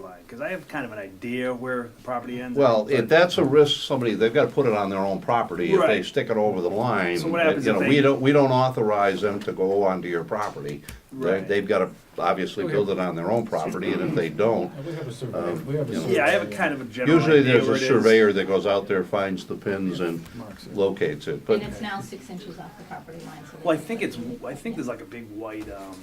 right, because I have kind of an idea where the property ends. Well, but- if that's a risk, somebody, they've gotta put it on their own property, if they Right. stick it over the line. So what happens You if know, they- we don't, we don't authorize them to go onto your property. They, Right. Mm-hmm. they've gotta obviously build it on their own property, and if they don't, Uh, We have a survey, Um, we have a survey. Yeah, I have a kind of a general usually idea there's where a it is. surveyor that goes out there, finds the pins and Marks it. locates it, but, And it's now six inches off the property line. so Well, I they- think it's, I think there's like a big white, um,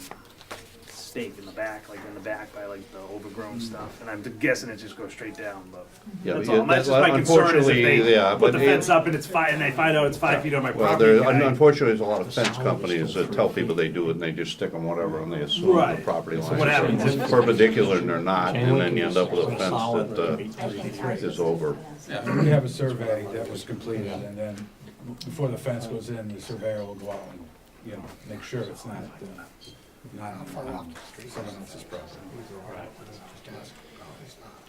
stake in the back, like in the back by like the overgrown stuff, and I'm guessing it just goes straight down, but. Yeah, That's yeah, all, that's just my that- concern is if unfortunately, yeah, they put but the it- fence up and it's five, and they find out it's five feet on my well, property. there, and I- unfortunately, there's a lot of fence companies that tell people they do it, and they just stick them whatever, and they assume the Right. property line. what happens if- Perpendicular, and they're not, and then you end up with a fence that, uh, I think ours is over. Yeah. We have a survey that was completed, and then before the fence goes in, the surveyor will go out and, you know, make sure it's not, uh, not on someone else's property.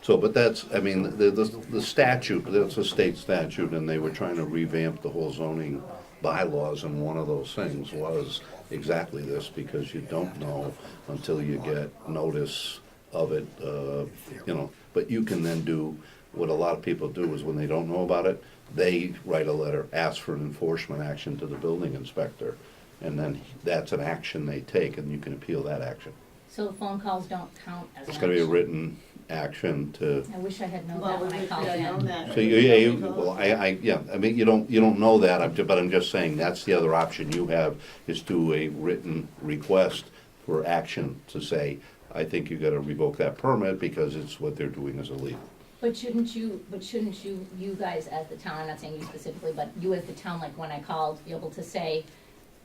So, but that's, I mean, the, the the statute, that's a state statute, and they were trying to revamp the whole zoning bylaws, and one of those things was exactly this, because you don't know until you get notice of it, uh, you know, but you can then do, what a lot of people do is when they don't know about it, they write a letter, ask for an enforcement action to the building inspector, and then that's an action they take, and you can appeal that action. So the phone calls don't count as. It's gonna be a much. written action to I wish I had known Well, that we when I would called know in. that. So you, yeah, you, well, I, I, yeah, I mean, you don't, you don't know that, I'm ju- but I'm just saying, that's the other option you have, is do a written request for action to say, I think you gotta revoke that permit because it's what they're doing is illegal. But shouldn't you, but shouldn't you, you guys as the town, I'm not saying you specifically, but you as the town, like when I called, be able to say,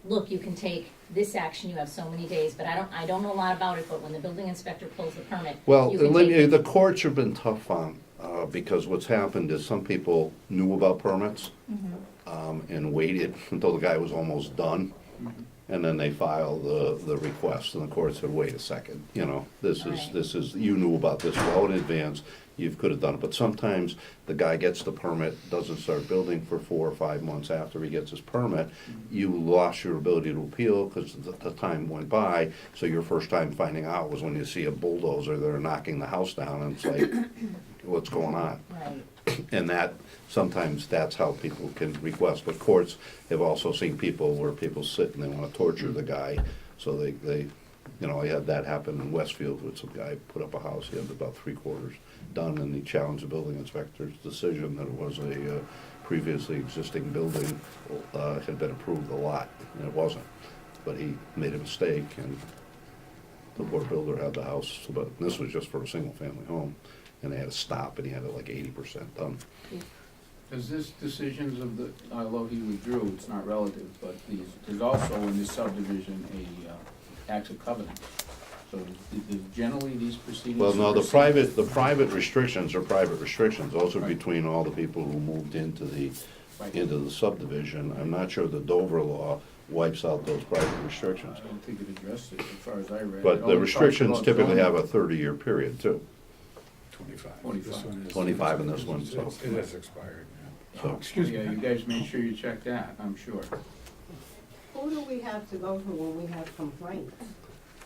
look, you can take this action, you have so many days, but I don't, I don't know a lot about it, but when the building inspector pulls the permit, Well, you can let take me- the courts have been tough on, uh, because what's happened is some people knew about permits, Mm-hmm. um, and waited until the guy was almost done, and then they filed the, the request, and the court said, wait a second, you know, this is, Right. this is, you knew about this well in advance, you could have done it, but sometimes the guy gets the permit, doesn't start building for four or five months after he gets his permit, you lost your ability to appeal, because the, the time went by, so your first time finding out was when you see a bulldozer, they're knocking the house down, and it's like, what's going on? Right. And that, sometimes that's how people can request, but courts have also seen people where people sit and they wanna torture the guy, so they, they, you know, I had that happen in Westfield with some guy put up a house, he had about three quarters done, and he challenged the building inspector's decision that it was a uh, previously existing building, uh, had been approved a lot, and it wasn't. But he made a mistake, and the poor builder had the house, but this was just for a single-family home, and they had to stop, and he had it like eighty percent done. Because this decisions of the, although he withdrew, it's not relative, but these, there's also in this subdivision a uh, act of covenant. So th- th- generally, these proceedings. Well, no, the supersede- private, the private restrictions are private restrictions, those are Right. between all the people who moved into the, Right. into the subdivision. I'm not sure the Dover law wipes out those private I restrictions. don't think it addressed it as far as I read. It But only the talks restrictions about typically zoning. have a thirty-year period too, Twenty-five. Twenty-five. This one is- 25 and this one, so- It's- It is expired, yeah. so. Excuse Yeah, you me. guys make sure you check that, I'm sure. Who do we have to go to when we have complaints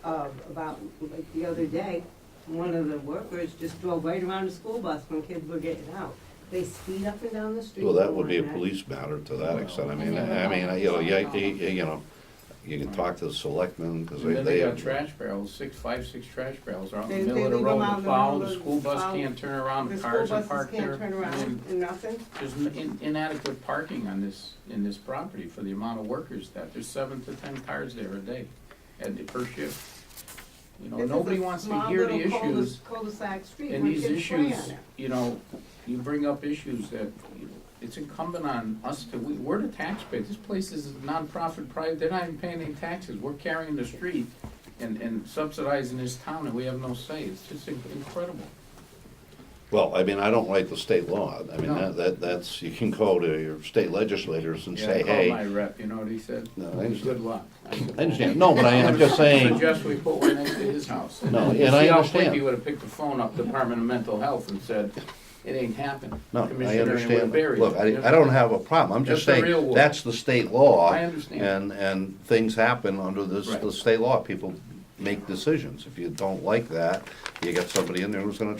of, about, like the other day, one of the workers just drove right around the school bus when kids were getting out. They speed up and down the street. Well, that would be a and all police matter to that extent, I Well- mean, I I mean, you know, you, you- you know, you can talk to the selectmen, because And they, then they they. got trash barrels, six, five, six trash barrels are out in They- the middle they of the leave them out road, in the the plow, middle the of school bus plow. can't turn around, The the school cars are buses parked there. can't turn around And and nothing. There's in- inadequate parking on this, in this property for the amount of workers that, there's seven to ten cars there a day, at the per shift. You know, This is a nobody wants to small hear the little cul- issues, Cul-de-sac street and where these kids play on issues, it. you know, you bring up issues that, you know, it's incumbent on us to, we, we're the taxpayer, this place is a nonprofit, private, they're not even paying any taxes, we're carrying the street and, and subsidizing this town, and we have no say, it's just in- incredible. Well, I mean, I don't write the state law. I mean, No. that, that, that's, you can go to your state legislators and Yeah, say, I called my hey. rep, you know what he said? No, I Good understand. luck. said, I understand, no, but I am just saying, Suggest we put one next to his house. No, You and I see how understand. quick He would've picked the phone up, Department of Mental Health, and said, it ain't happened. no, I Commissioner, and would've understand. buried Look, it. I, I don't have a problem. I'm just That's the real saying, world. that's the state law. I understand. And, and things happen under this, Right. the state law. People make decisions. If you don't like that, you got somebody in there who's gonna